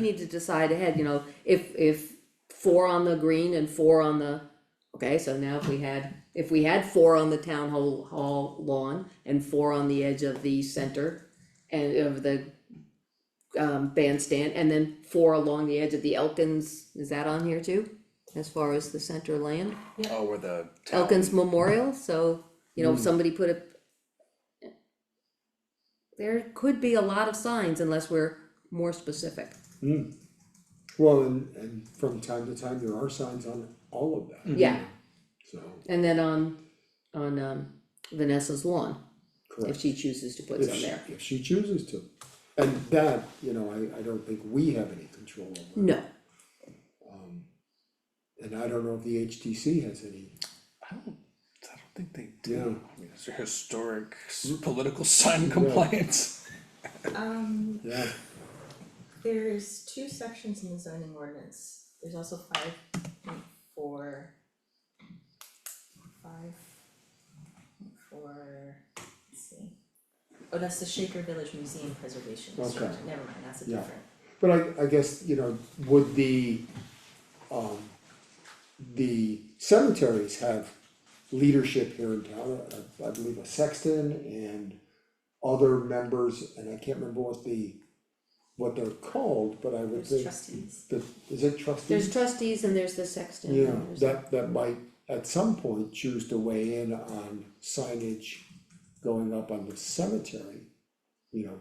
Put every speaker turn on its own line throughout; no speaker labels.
we need to decide ahead, you know, if, if four on the green and four on the, okay, so now if we had, if we had four on the town hall, hall lawn and four on the edge of the center and of the um, bandstand, and then four along the edge of the Elkins, is that on here too? As far as the center land,
Oh, where the. town-
Elkins Memorial, so, you know, somebody put a. There could be a lot of signs unless we're more specific.
Well, and, and from time to time, there are signs on all of that,
Yeah,
so,
and then on, on um Vanessa's lawn, if
correct.
she chooses to put
If
some
she-
there.
If she chooses to, and that, you know, I, I don't think we have any control over,
No,
and I don't know if the HTC has any,
I don't, I don't think they do.
you know,
I mean, it's a historic s- political sign compliance.
Um,
yeah,
there's two sections in the zoning ordinance, there's also five point four. Five. point four, let's see. Oh, that's the Shaker Village Museum Preservation
Okay.
District, never mind, that's a
Yeah.
different,
but I, I guess, you know, would the, um, the cemeteries have leadership here in town, I, I believe a sexton and other members, and I can't remember what the, what they're called, but I would
there's
think
trustees.
the, is it trustees?
there's trustees and there's the sexton.
Mm-hmm. Yeah,
and there's-
that, that might at some point choose to weigh in on signage going up on the cemetery, you know,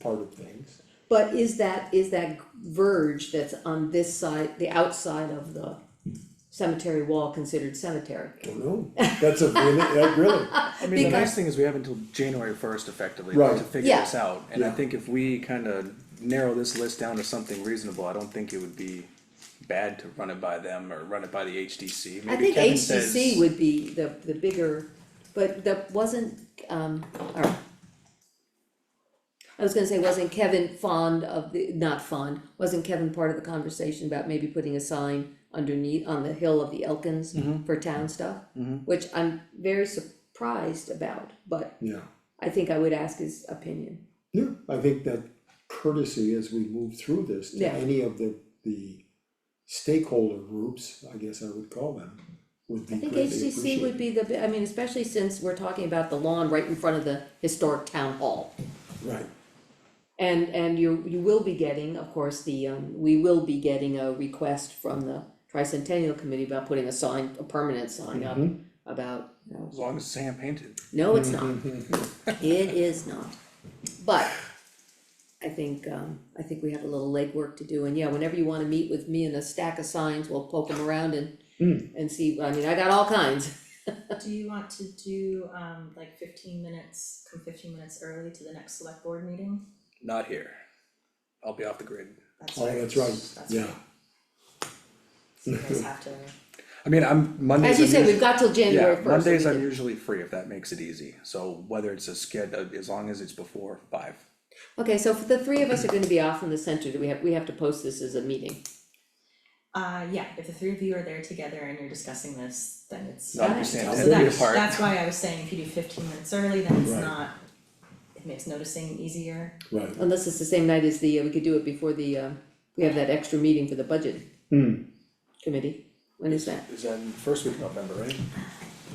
part of things.
But is that, is that verge that's on this side, the outside of the cemetery wall considered cemetery?
I don't know, that's a really, that really,
I mean, the
Because-
nice thing is we have until January first effectively
Right.
to figure
Yeah.
this out, and I
Yeah.
think if we kinda narrow this list down to something reasonable, I don't think it would be bad to run it by them or run it by the HDC.
I
Maybe
think
Kevin says-
HCC would be the, the bigger, but that wasn't, um, alright. I was gonna say, wasn't Kevin fond of the, not fond, wasn't Kevin part of the conversation about maybe putting a sign underneath, on the hill of the Elkins
Mm-hmm.
for town stuff? Which I'm very surprised about, but
yeah.
I think I would ask his opinion.
Yeah, I think that courtesy as we move through this to
Yeah.
any of the, the stakeholder groups, I guess I would call them, would be
I think
greatly appreciated.
HCC would be the, bi- I mean, especially since we're talking about the lawn right in front of the historic town hall.
Right,
And, and you, you will be getting, of course, the, um, we will be getting a request from the tricentennial committee about putting a sign, a permanent sign up
Mm-hmm.
about, you know,
As long as it's hand painted.
no, it's not.
Mm-hmm.
It is not. But I think, um, I think we have a little legwork to do, and yeah, whenever you wanna meet with me and a stack of signs, we'll poke them around and,
Mm.
and see, I mean, I got all kinds.
Do you want to do, um, like fifteen minutes, come fifteen minutes early to the next select board meeting?
Not here. I'll be off the grid.
That's
oh,
right.
that's right,
That's
yeah,
right, so you guys have to,
I mean, I'm Mondays.
As you
I'm
said,
usually-
we've got till January
Yeah,
first.
Mondays I'm usually free if that makes it easy, so whether it's a sked, uh, as long as it's before five.
Okay, so for the three of us are gonna be off in the center, do we have, we have to post this as a meeting?
uh, yeah, if the three of you are there together and you're discussing this, then it's.
Not
Okay.
understand
So
ten feet
that's,
apart.
that's why I was saying if you do fifteen minutes early, then it's
Right.
not, it makes noticing easier.
right.
Unless it's the same night as the, uh, we could do it before the, uh, we have that extra meeting for the budget
Hmm.
committee, when is that?
Is that in first week of November, right?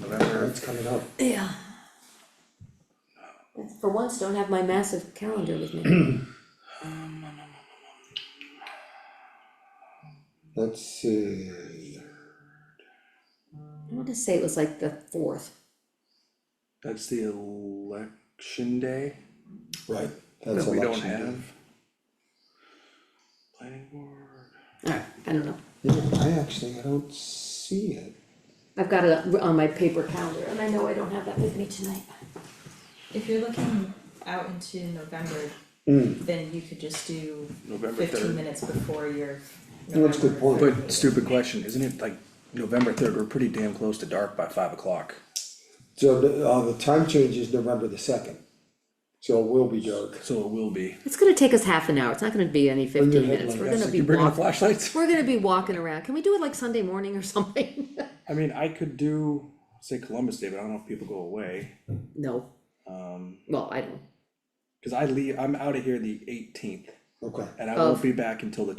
November, it's coming up.
Yeah. For once, don't have my massive calendar with me,
Let's see,
I wanna say it was like the fourth,
That's the election day
right, that's
that we don't
election
have.
day.
Planning board.
alright, I don't know.
Yeah, I actually, I don't see it.
I've got it on my paper calendar, and I know I don't have that with me tonight.
If you're looking out into November,
Hmm.
then you could just do
November
fifteen
3rd.
minutes before your November.
That's a good point.
But stupid question, isn't it like November third, we're pretty damn close to dark by five o'clock.
So the, uh, the time change is November the second, so it will be dark.
So it will be.
It's gonna take us half an hour, it's not gonna be any
your
fifteen minutes,
headlight,
we're
yes,
gonna
Like,
be
you bringing
walking,
flashlights?
we're gonna be walking around, can we do it like Sunday morning or something?
I mean, I could do, say Columbus Day, but I don't know if people go away,
No,
um,
well, I don't,
cause I leave, I'm out of here the eighteenth.
okay.
And I
Of-
won't be back until the